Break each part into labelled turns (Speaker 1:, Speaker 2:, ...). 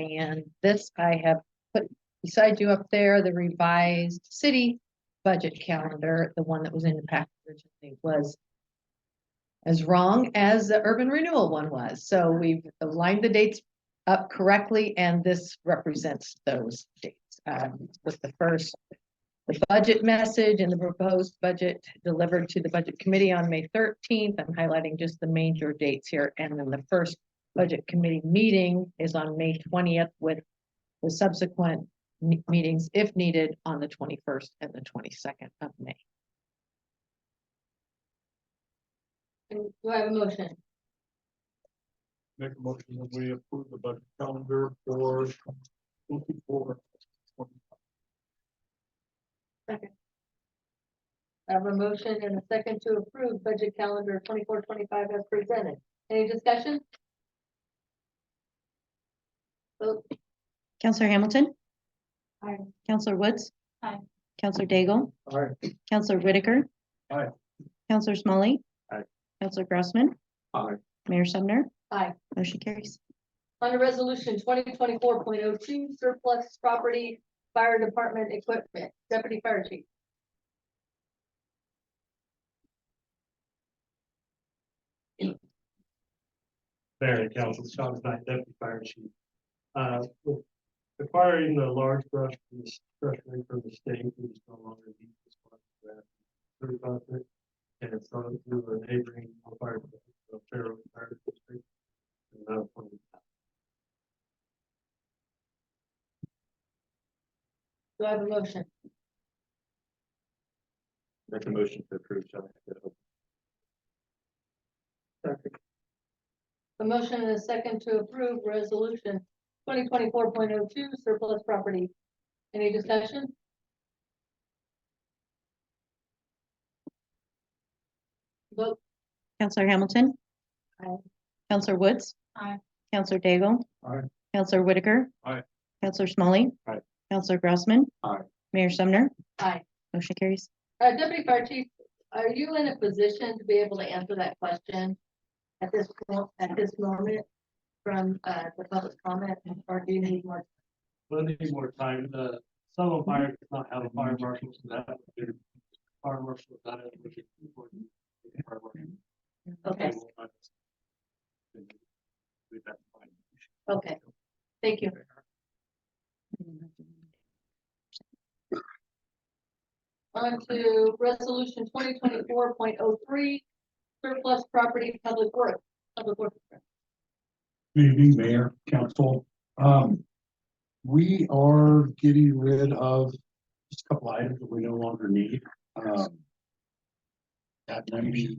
Speaker 1: And this I have put beside you up there, the revised city budget calendar, the one that was in the package originally was as wrong as the urban renewal one was. So we've aligned the dates up correctly and this represents those dates. Um, with the first, the budget message and the proposed budget delivered to the budget committee on May thirteenth. I'm highlighting just the major dates here and then the first budget committee meeting is on May twentieth with the subsequent me- meetings, if needed, on the twenty-first and the twenty-second of May.
Speaker 2: And do I have a motion?
Speaker 3: Make a motion that we approve the budget calendar for twenty-four.
Speaker 2: I have a motion and a second to approve budget calendar twenty-four, twenty-five as presented. Any discussion? Vote,
Speaker 4: Counselor Hamilton.
Speaker 2: Aye.
Speaker 4: Counselor Woods.
Speaker 2: Aye.
Speaker 4: Counselor Daigle.
Speaker 3: All right.
Speaker 4: Counselor Whitaker.
Speaker 3: Aye.
Speaker 4: Counselor Smalley.
Speaker 3: Aye.
Speaker 4: Counselor Grossman.
Speaker 3: All right.
Speaker 4: Mayor Sumner.
Speaker 2: aye.
Speaker 4: Motion carries.
Speaker 2: Under resolution twenty twenty-four point oh two surplus property, fire department equipment, deputy fire chief.
Speaker 3: Mayor and Council, Sean Knight, Deputy Fire Chief. Uh, with acquiring the large brush from the structure from the state, we just no longer need this one. We have Three buses, and it's run through a neighboring fire, the Fairfield Fire District. And that's one.
Speaker 2: Do I have a motion?
Speaker 3: Make a motion to approve, Sean.
Speaker 2: A motion and a second to approve resolution twenty twenty-four point oh two surplus property. Any discussion? Vote,
Speaker 4: Counselor Hamilton.
Speaker 2: Aye.
Speaker 4: Counselor Woods.
Speaker 2: Aye.
Speaker 4: Counselor Daigle.
Speaker 3: Aye.
Speaker 4: Counselor Whitaker.
Speaker 3: Aye.
Speaker 4: Counselor Smalley.
Speaker 3: Aye.
Speaker 4: Counselor Grossman.
Speaker 3: Aye.
Speaker 4: Mayor Sumner.
Speaker 2: aye.
Speaker 4: Motion carries.
Speaker 2: Uh, Deputy Fire Chief, are you in a position to be able to answer that question at this, point? at this moment from, uh, the public comment, or do you need more?
Speaker 3: We'll need more time, the, some of fire does not have a fire marshal, so that, would be- fire marshal, that is. what you- what you- fire marshal.
Speaker 2: Okay,
Speaker 3: With that in mind.
Speaker 2: okay. Thank you. On to resolution twenty twenty-four point oh three, surplus property, public work, public work.
Speaker 5: Good evening, Mayor, Council. Um, we are getting rid of just a couple items that we no longer need. Um, that ninety,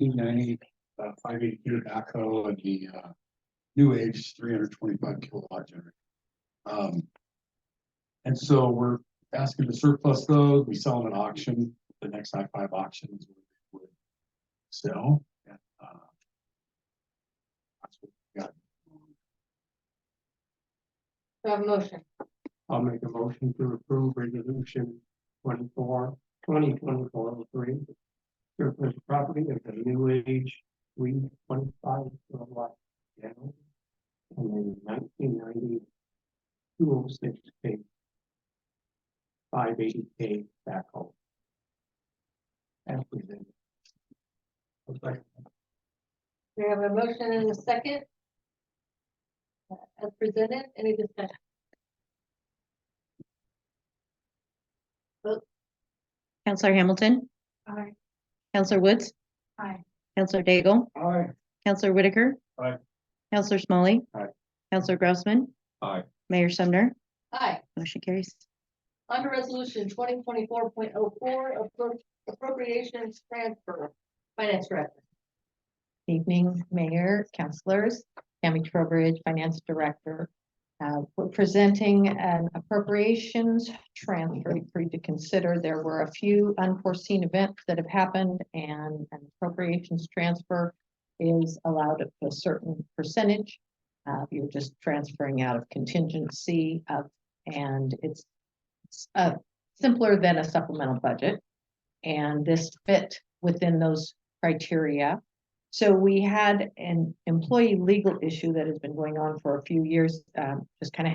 Speaker 5: ninety, uh, five eighty backhoe and the, uh, new age three hundred twenty-five kilowatt generator. Um, and so we're asking to surplus those. We sell them at auction, the next I five auctions. we would Sell. uh, That's what we got
Speaker 2: Do I have a motion?
Speaker 3: I'll make a motion to approve resolution twenty-four, twenty twenty-four oh three. Surplus property of the new age, three twenty-five kilowatt general. And then nineteen ninety, two oh six K. Five eighty K backhoe. As presented. Okay.
Speaker 2: We have a motion and a second. Uh, As presented, any discussion?
Speaker 4: Counselor Hamilton.
Speaker 2: Aye.
Speaker 4: Counselor Woods.
Speaker 2: Aye.
Speaker 4: Counselor Daigle.
Speaker 3: All right.
Speaker 4: Counselor Whitaker.
Speaker 3: Aye.
Speaker 4: Counselor Smalley.
Speaker 5: Aye.
Speaker 4: Counselor Grossman.
Speaker 5: Aye.
Speaker 4: Mayor Sumner.
Speaker 2: Aye.
Speaker 4: Motion carries.
Speaker 2: Under resolution twenty twenty-four point oh four, appropriations transfer, finance director.
Speaker 1: Evening, Mayor, Councilors, Tammy Trowbridge, Finance Director. Uh, we're presenting an appropriations transfer for you to consider. There were a few unforeseen events that have happened and an appropriations transfer is allowed at a certain percentage. Uh, you're just transferring out of contingency of, and it's it's, uh, simpler than a supplemental budget. And this fit within those criteria. So we had an employee legal issue that has been going on for a few years, um, just kind of